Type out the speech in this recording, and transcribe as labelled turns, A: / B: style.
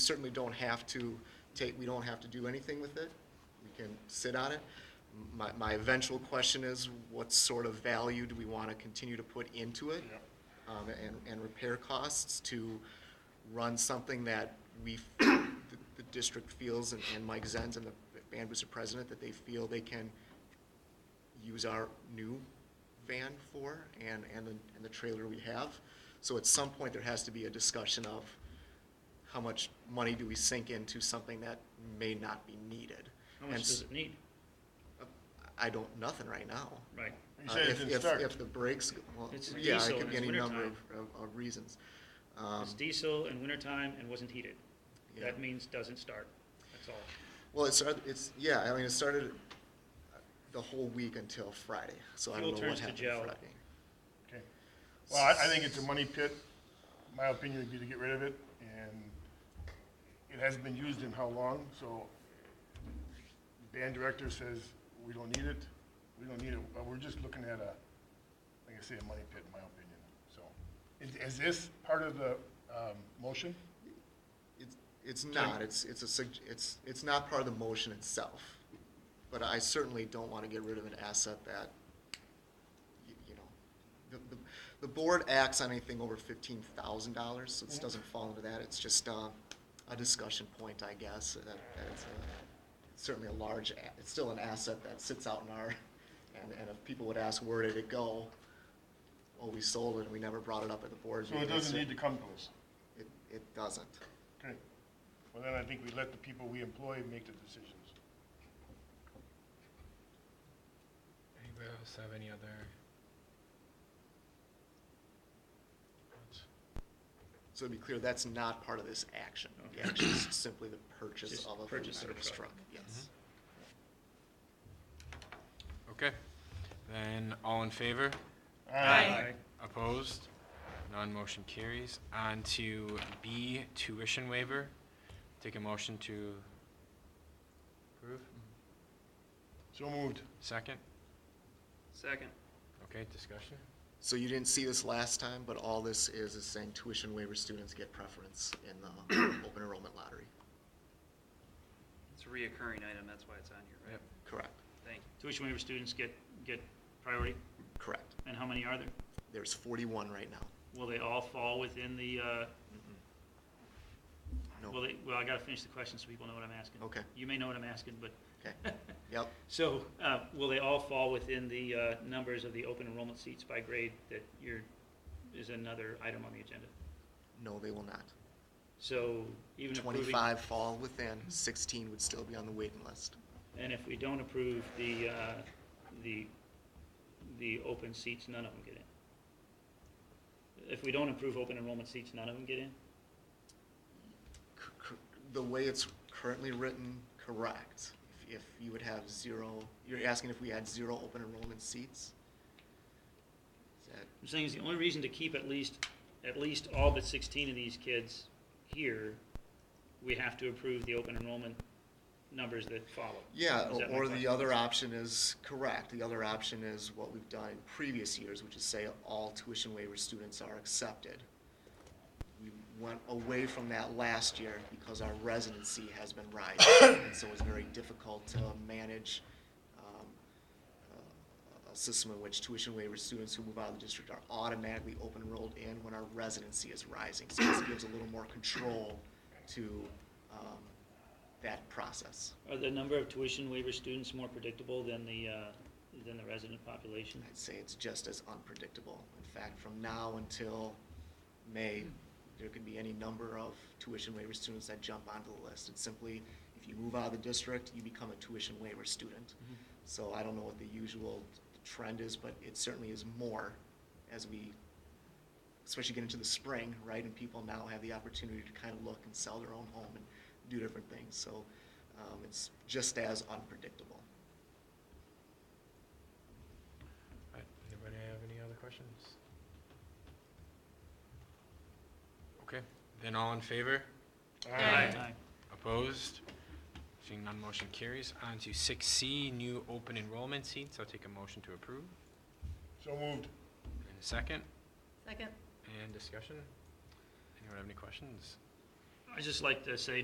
A: certainly don't have to take, we don't have to do anything with it. We can sit on it. My, my eventual question is, what sort of value do we want to continue to put into it? Um, and, and repair costs to run something that we, the, the district feels and, and Mike Zenz and the band was the president, that they feel they can use our new van for and, and the, and the trailer we have. So at some point, there has to be a discussion of how much money do we sink into something that may not be needed?
B: How
A: And
B: much
A: s-
B: does
A: uh,
B: it need?
A: I don't, nothing right now.
B: Right.
C: You
A: Uh,
C: said
A: if-
C: it didn't
A: if-
C: start.
A: If the brakes, go- well,
B: It's
A: yeah, it
B: diesel
A: could
B: and
A: be
B: it's
A: any number of,
B: wintertime.
A: of- of reasons. Um,
B: It's diesel in wintertime and wasn't heated.
A: Yeah.
B: That means doesn't start, that's all.
A: Well, it started, it's, yeah, I mean, it started the whole week until Friday, so I don't know
B: Fuel
A: what
B: turns to
A: happened
B: gel.
A: Friday.
C: Okay. Well, I, I think it's a money pit. My opinion would be to get rid of it, and it hasn't been used in how long, so the band director says, we don't need it, we don't need it, but we're just looking at a, like I say, a money pit, in my opinion, so. Is, is this part of the, um, motion?
A: It's, it's not, it's, it's a, sug- it's, it's not part of the motion itself, but I certainly don't want to get rid of an asset that, y- you know, the, the, the board acts on anything over fifteen thousand dollars, so this doesn't fall into that, it's just, uh, a discussion point, I guess, that, that it's a, certainly a large, a- it's still an asset that sits out in our, and, and if people would ask, where did it go? Well, we sold it, and we never brought it up at the board
C: So
A: meeting.
C: it doesn't
A: It's-
C: need to come to us?
A: It, it doesn't.
C: Okay. Well, then I think we let the people we employ make the decisions.
D: Anybody else have any other? thoughts?
A: So to be clear, that's not part of this action. The action is simply the purchase
B: Just
A: of a food
B: purchase of a
A: service
B: truck. Mm-hmm.
A: truck, yes.
D: Okay, then all in favor? Opposed? None motion carries. On to B, tuition waiver. Take a motion to approve.
C: So moved.
D: Second?
B: Second.
D: Okay, discussion?
A: So you didn't see this last time, but all this is, is saying tuition waiver students get preference in the open enrollment lottery.
E: It's a reoccurring item, that's why it's on here, right?
D: Yep.
A: Correct,
E: Thank you.
B: Tuition waiver students get, get priority,
A: correct.
B: and how many are there?
A: There's forty-one right now.
B: Will they all fall within the, uh, will
A: No,
B: they, well, I gotta finish the question so people know what I'm asking.
A: Okay.
B: You may know what I'm asking, but,
A: okay, yep,
B: so, uh, will they all fall within the, uh, numbers of the open enrollment seats by grade that you're, is another item on the agenda?
A: no, they will not.
B: So, even approving.
A: Twenty-five fall within, sixteen would still be on the waiting list.
B: And if we don't approve the, uh, the, the open seats, none of them get in. If we don't approve open enrollment seats, none of them get in?
A: c- c- the way it's currently written, correct. If if you would have zero, you're asking if we had zero open enrollment seats? Is that,
B: I'm saying is the only reason to keep at least, at least all but sixteen of these kids here, we have to approve the open enrollment numbers that follow.
A: yeah,
B: Is that my
A: or the
B: question?
A: other option is, correct, the other option is what we've done in previous years, which is say all tuition waiver students are accepted. We went away from that last year because our residency has been rising, and so it's very difficult to manage, um, uh, a system in which tuition waiver students who move out of the district are automatically open enrolled in when our residency is rising. So this gives a little more control to um, that process.
B: Are the number of tuition waiver students more predictable than the, uh, than the resident population?
A: I'd say it's just as unpredictable. In fact, from now until May, there could be any number of tuition waiver students that jump onto the list. It's simply, if you move out of the district, you become a tuition waiver student. So I don't know what the usual trend is, but it certainly is more as we, especially get into the spring, right? And people now have the opportunity to kind of look and sell their own home and do different things. So um, it's just as unpredictable.
D: All right, Anybody have any other questions? Okay, then all in favor?
C: Aye.
D: Opposed? Seeing none, motion carries. On to six C, new open enrollment seats. I'll take a motion to approve.
C: So moved.
D: And a second,
F: Second.
D: and discussion? Anyone have any questions?
B: i just like to say